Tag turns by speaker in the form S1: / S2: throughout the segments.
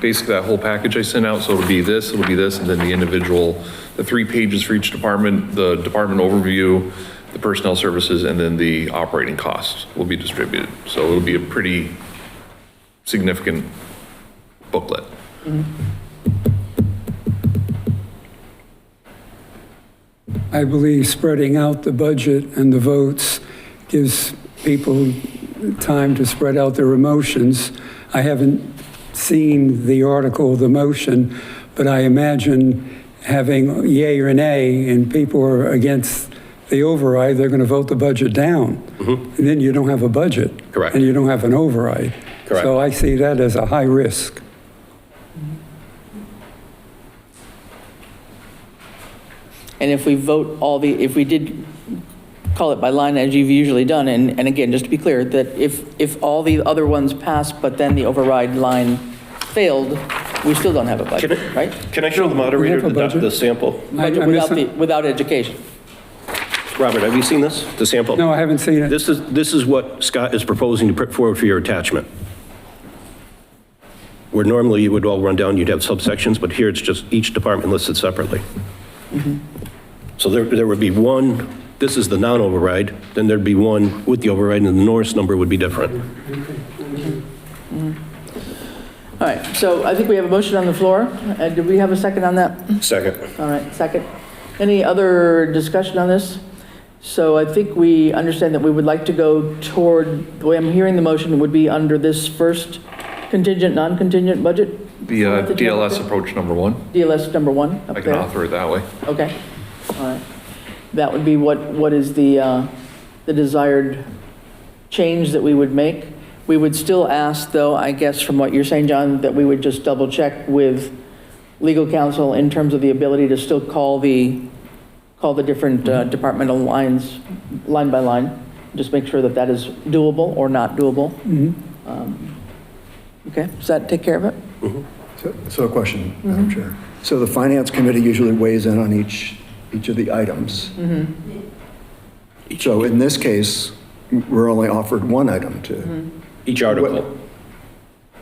S1: basically that whole package I sent out, so it'll be this, it'll be this, and then the individual, the three pages for each department, the department overview, the personnel services, and then the operating costs will be distributed. So it'll be a pretty significant booklet.
S2: I believe spreading out the budget and the votes gives people time to spread out their emotions. I haven't seen the article, the motion, but I imagine having yay or nay and people are against the override, they're going to vote the budget down. And then you don't have a budget.
S1: Mm-hmm. Correct.
S2: And you don't have an override.
S1: Correct.
S2: So I see that as a high risk.
S3: And if we vote all the, if we did call it by line as you've usually done, and, and again, just to be clear, that if, if all the other ones pass, but then the override line failed, we still don't have a budget,
S4: Can I-
S3: right?
S4: Can I show the moderator
S2: have a
S4: the doc-
S2: budget.
S4: the
S2: I-
S4: sample?
S2: I
S3: Budget without
S2: miss-
S3: the, without education.
S4: Robert, have you seen this, the sample?
S2: No, I haven't seen it.
S4: This is, this is what Scott is proposing to put forward for your attachment. Where normally you would all run down, you'd have subsections, but here it's just each department listed separately.
S2: Mm-hmm.
S4: So there, there would be one, this is the non-override, then there'd be one with the override, and the Norris number would be different.
S3: All right, so I think we have a motion on the floor. Uh, Do we have a second on that?
S4: Second.
S3: All right, second. Any other discussion on this? So I think we understand that we would like to go toward, the way I'm hearing the motion would be under this first contingent, non-contingent budget?
S1: The uh,
S3: Format that you have up
S1: DLS approach number one,
S3: there? DLS number one up
S1: I can
S3: there?
S1: author it that way.
S3: Okay, all right. That would be what, what is the, uh, the desired change that we would make? We would still ask, though, I guess from what you're saying, John, that we would just double-check with legal counsel in terms of the ability to still call the, call the different uh, departmental lines, line by line, just make sure that that is doable or not doable. Um, Okay, does that take care of it?
S5: So- So a question, Madam
S3: Mm-hmm.
S5: Chair. So the Finance Committee usually weighs in on each, each of the items.
S3: Mm-hmm.
S5: So in this case, we're only offered one item
S3: Mm-hmm.
S5: to,
S4: Each article,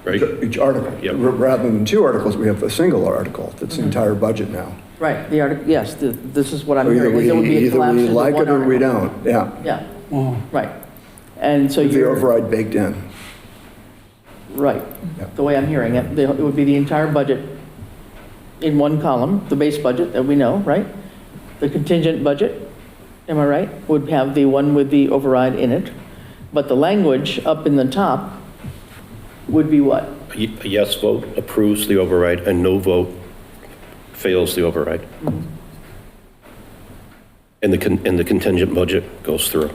S4: right?
S5: each article.
S4: Yep.
S5: Ra- Rather than two articles, we have a single article, that's
S3: Mm-hmm.
S5: the entire budget now.
S3: Right, the article, yes, th- this is what I'm
S5: So either
S3: hearing.
S5: we,
S3: There would be a
S5: either
S3: collapse
S5: we
S3: into
S5: like
S3: one
S5: it or we
S3: article.
S5: don't, yeah.
S3: Yeah,
S2: Wow.
S3: right. And so
S5: With The
S3: you're,
S5: override baked in.
S3: right,
S5: Yeah.
S3: the way I'm hearing it, the- it would be the entire budget in one column, the base budget that we know, right? The contingent budget, am I right, would have the one with the override in it. But the language up in the top would be what?
S4: A ye- a yes vote approves the override, a no vote fails the override. And the, con- and the contingent budget goes through.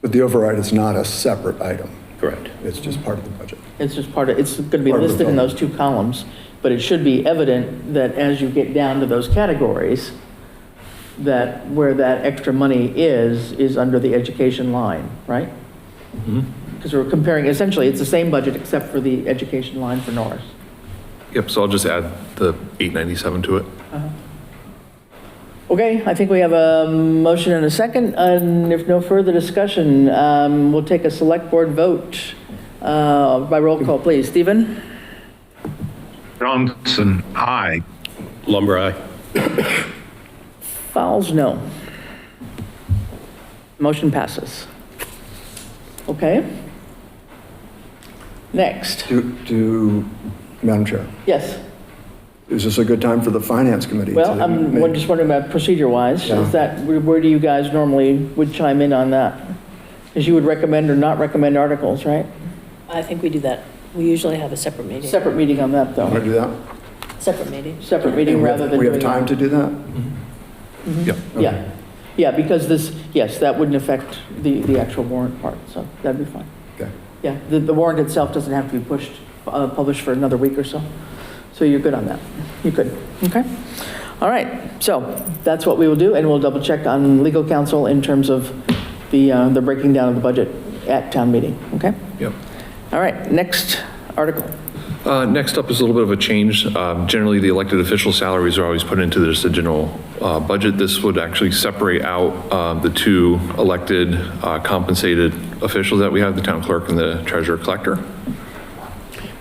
S5: But the override is not a separate item.
S4: Correct.
S5: It's just part of the budget.
S3: It's just part of, it's going to be
S5: Part of the
S3: listed in
S5: bill.
S3: those two columns, but it should be evident that as you get down to those categories, that where that extra money is, is under the education line, right?
S5: Mm-hmm.
S3: Because we're comparing, essentially, it's the same budget except for the education line for Norris.
S1: Yep, so I'll just add the 897 to it.
S3: Okay, I think we have a motion and a second, and if no further discussion, um, we'll take a select board vote uh, by roll call, please. Stephen?
S6: Johnson, aye.
S4: Lumber, aye.
S3: Fouls, no. Motion passes. Okay. Next,
S5: Do, do, Madam Chair,
S3: yes.
S5: is this a good time for the Finance Committee?
S3: Well,
S5: to
S3: I'm
S5: make-
S3: won- just wondering about procedure-wise,
S5: Yeah.
S3: is that, where- where do you guys normally would chime in on that? Because you would recommend or not recommend articles, right?
S7: I think we do that. We usually have a separate meeting,
S3: Separate meeting on that,
S5: Want to
S3: though.
S5: do that?
S7: separate meeting.
S3: Separate meeting
S5: And we-
S3: rather than
S5: We
S3: doing... Mm-hmm.
S5: have time to do that?
S1: Yep.
S3: Yeah, yeah, because this, yes, that wouldn't affect the, the actual warrant part, so that'd be fine.
S5: Okay.
S3: Yeah, the, the warrant itself doesn't have to be pushed, uh, published for another week or so. So you're good on that. You're good. Okay. All right. So that's what we will do, and we'll double check on legal counsel in terms of the, uh, the breaking down of the budget at town meeting. Okay?
S1: Yep.
S3: All right. Next article.
S1: Uh, Next up is a little bit of a change. Um, Generally, the elected official salaries are always put into this general uh, budget. This would actually separate out uh, the two elected uh, compensated officials that we have, the town clerk and the treasurer collector.